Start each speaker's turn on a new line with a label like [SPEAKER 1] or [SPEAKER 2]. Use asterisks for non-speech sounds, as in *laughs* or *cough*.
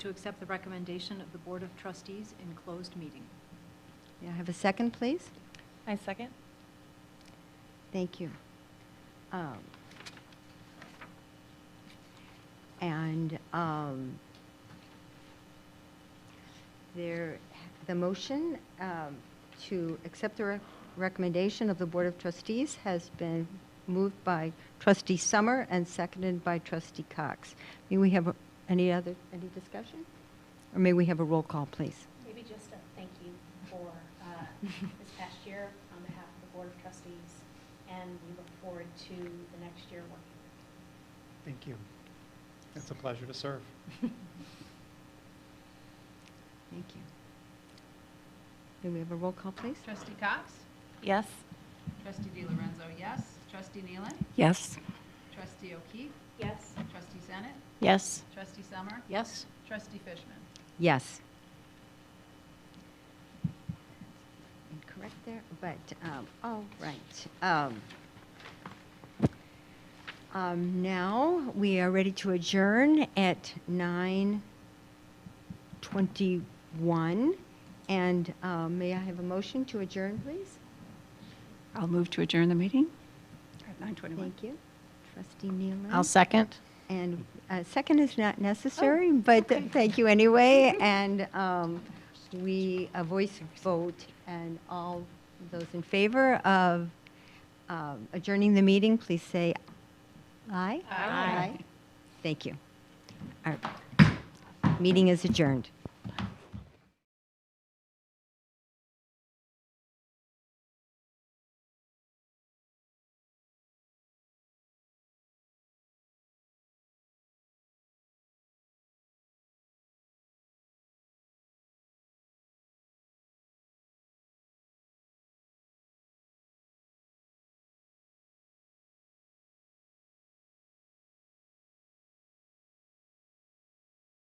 [SPEAKER 1] to accept the recommendation of the Board of Trustees in closed meeting.
[SPEAKER 2] May I have a second, please?
[SPEAKER 3] I second.
[SPEAKER 2] Thank you. Um, And um, there, the motion um, to accept the rec- recommendation of the Board of Trustees has been moved by trustee Summer and seconded by trustee Cox. May we have a- any other, any discussion? Or may we have a roll call, please?
[SPEAKER 4] Maybe just a thank you for uh, this past year on behalf of the Board of Trustees, and we look forward to the next year working.
[SPEAKER 5] Thank you. It's a pleasure to serve.
[SPEAKER 2] Thank you. May we have a roll call, please?
[SPEAKER 6] Trustee Cox?
[SPEAKER 3] Yes.
[SPEAKER 6] Trustee DiLorenzo, yes. Trustee Nealon?
[SPEAKER 3] Yes.
[SPEAKER 6] Trustee O'Keefe?
[SPEAKER 4] Yes?
[SPEAKER 6] Trustee Senate?
[SPEAKER 3] Yes.
[SPEAKER 6] Trustee Summer?
[SPEAKER 1] Yes.
[SPEAKER 6] Trustee Fishman?
[SPEAKER 2] Yes. Incorrect there, but, um, all right. um, um, Now, we are ready to adjourn at 9:21. And um, may I have a motion to adjourn, please?
[SPEAKER 7] I'll move to adjourn the meeting at 9:21.
[SPEAKER 2] Thank you. Trustee Nealon?
[SPEAKER 3] I'll second.
[SPEAKER 2] And a second is not necessary, but th- *laughs* thank you anyway. And um, we, a voice vote, and all those in favor of um, adjourning the meeting, please say aye.
[SPEAKER 6] Aye.
[SPEAKER 2] Thank you. Our meeting is adjourned.